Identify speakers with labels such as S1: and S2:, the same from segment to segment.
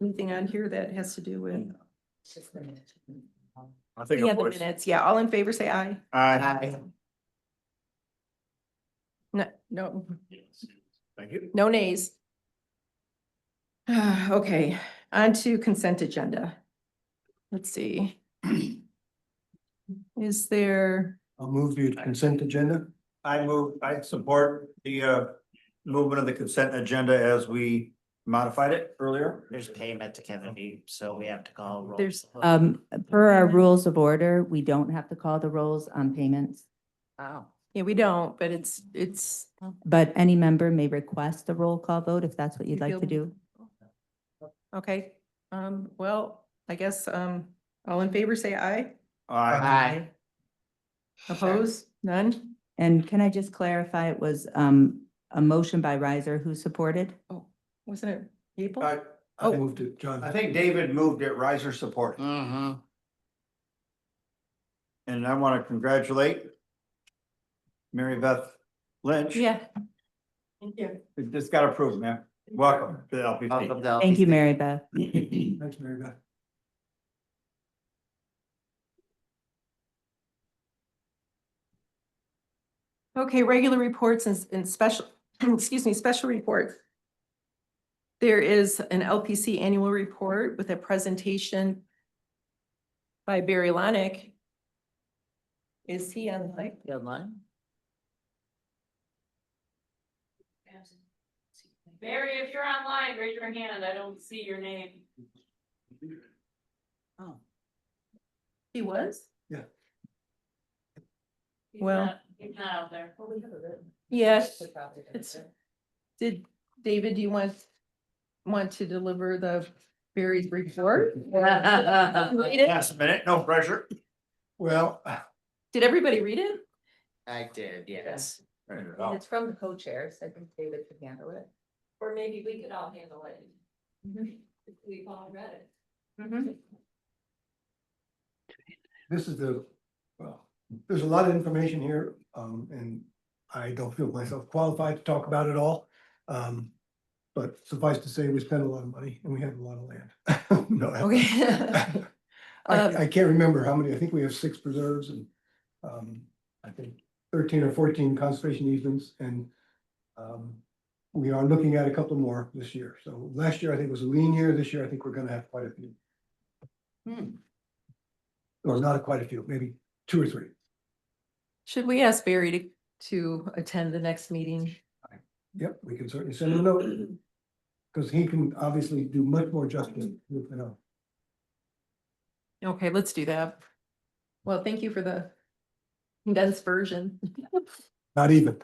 S1: Anything on here that has to do with,
S2: I Mm, think.
S1: the
S2: of
S1: other
S2: course.
S1: minutes, yeah, all in favor, say aye.
S2: Aye.
S1: No, no,
S2: Thank you.
S1: no nays. Okay, on to consent agenda. Let's see. Is there,
S3: I'll move the consent agenda.
S2: I move, I support the uh movement of the consent agenda as we modified it earlier.
S4: There's payment to Kevin B, so we have to call. roll.
S1: There's,
S5: Um, per our rules of order, we don't have to call the rolls Um, on payments,
S4: Wow.
S1: yeah, we don't, but it's, it's,
S5: but any member may request a roll call vote if that's what you'd like to do.
S1: okay. Um, well, I guess, um, all in favor, say aye.
S2: Aye.
S4: Aye.
S1: Oppose? None?
S5: And can I just clarify, it was, um, a motion by riser who supported?
S1: Wasn't it people?
S3: I, I
S1: Oh.
S3: moved it, John.
S2: I think David moved it, riser support,
S5: Mm.
S4: Mm-hmm.
S2: and I want to congratulate Mary Beth Lynch.
S1: Yeah. Thank you.
S2: It just got approved, ma'am. Welcome to the
S4: Welcome
S2: LPP.
S4: to.
S5: Thank you, Mary Beth.
S3: Thanks, Mary Beth.
S1: Okay, regular reports and, and special, excuse me, special reports. There is an LPC annual report with a presentation by Barry Lonick. Is he on the mic?
S4: Good line.
S6: Barry, if you're online, raise your hand. I don't see your name.
S1: He was?
S6: He's
S1: Well-
S6: not- He's not out there.
S1: Yes. It's- Did, David, do you want, want to deliver the Barry's report? Read it?
S2: Last minute, no pressure.
S3: Well,
S1: Did everybody read it?
S4: I did, yes.
S2: Well,
S5: from the co-chairs, I think David could handle it.
S6: Or maybe we could all handle it. If We've all read it.
S3: this is the, well, there's a lot of information here, um, and I don't feel myself qualified to talk about it all. Um, but suffice to say, we spent a lot of money and we have a lot of land. No, I-
S1: Okay. Um,
S3: I, I can't remember how many, I think we have six preserves and, um, I think thirteen or fourteen conservation easements and, um, we are looking at a couple more this year. So last year, I think was a lean year. This year, I think we're gonna have quite a few.
S5: Hmm.
S3: Or not quite a few, maybe two or three.
S1: Should we ask Barry to, to attend the next meeting?
S3: Yep, we can certainly send him a note. Cause he can obviously do much more justice, you know.
S1: Okay, let's do that. Well, thank you for the condensed version.
S3: Not even.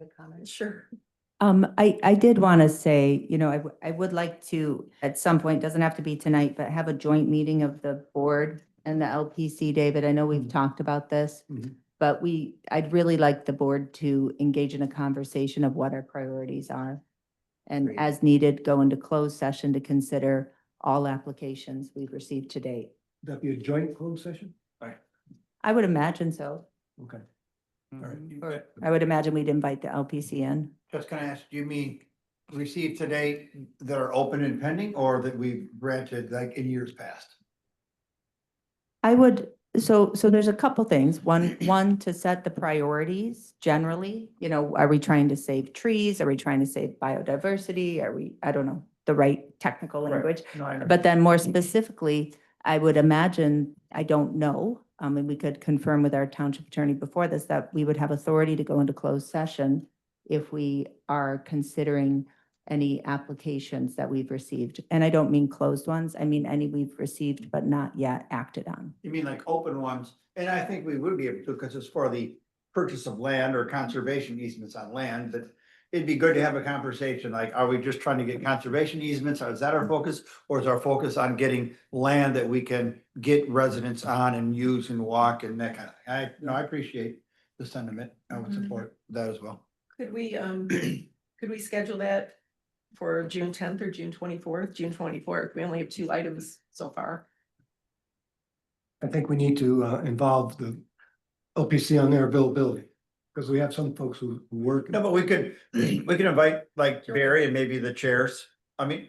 S1: Sure.
S5: Um, I, I did want to say, you know, I, w- I would like to, at some point, doesn't have to be tonight, but have a joint meeting of the board and the LPC, David. I know we've talked about this.
S3: Mhm.
S5: But we, I'd really like the board to engage in a conversation of what our priorities are. And
S4: Great.
S5: as needed, go into closed session to consider all applications we've received to date.
S3: That be a joint closed session?
S5: I would imagine so.
S3: Okay, all right.
S4: Mhm.
S5: Or I would imagine we'd invite the LPC in.
S2: Just gonna ask, do you mean received today that are open and pending or that we've granted like in years past?
S5: I would, so, so there's a couple things. One, one, to set the priorities generally. You know, are we trying to save trees? Are we trying to save biodiversity? Are we, I don't know, the right technical
S2: Right.
S5: language?
S2: No, I know.
S5: But then more specifically, I would imagine, I don't know, um, and we could confirm with our township attorney before this, that we would have authority to go into closed session if we are considering any applications that we've received. And I don't mean closed ones, I mean any we've received but not yet acted on.
S2: You mean like open ones? And I think we would be able to, because it's for the purchase of land or conservation easements on land, but it'd be good to have a conversation, like, are we just trying to get conservation easements? Is that our focus? Or is our focus on getting land that we can get residents on and use and walk and that kind of thing? I, no, I appreciate the sentiment. I would support that as well.
S1: Could we, um, could we schedule that for June tenth or June twenty-fourth? June twenty-fourth, we only have two items so far.
S3: I think we need to uh, involve the LPC on their availability, because we have some folks who who work.
S2: No, but we could, we could invite like Barry and maybe the chairs I mean,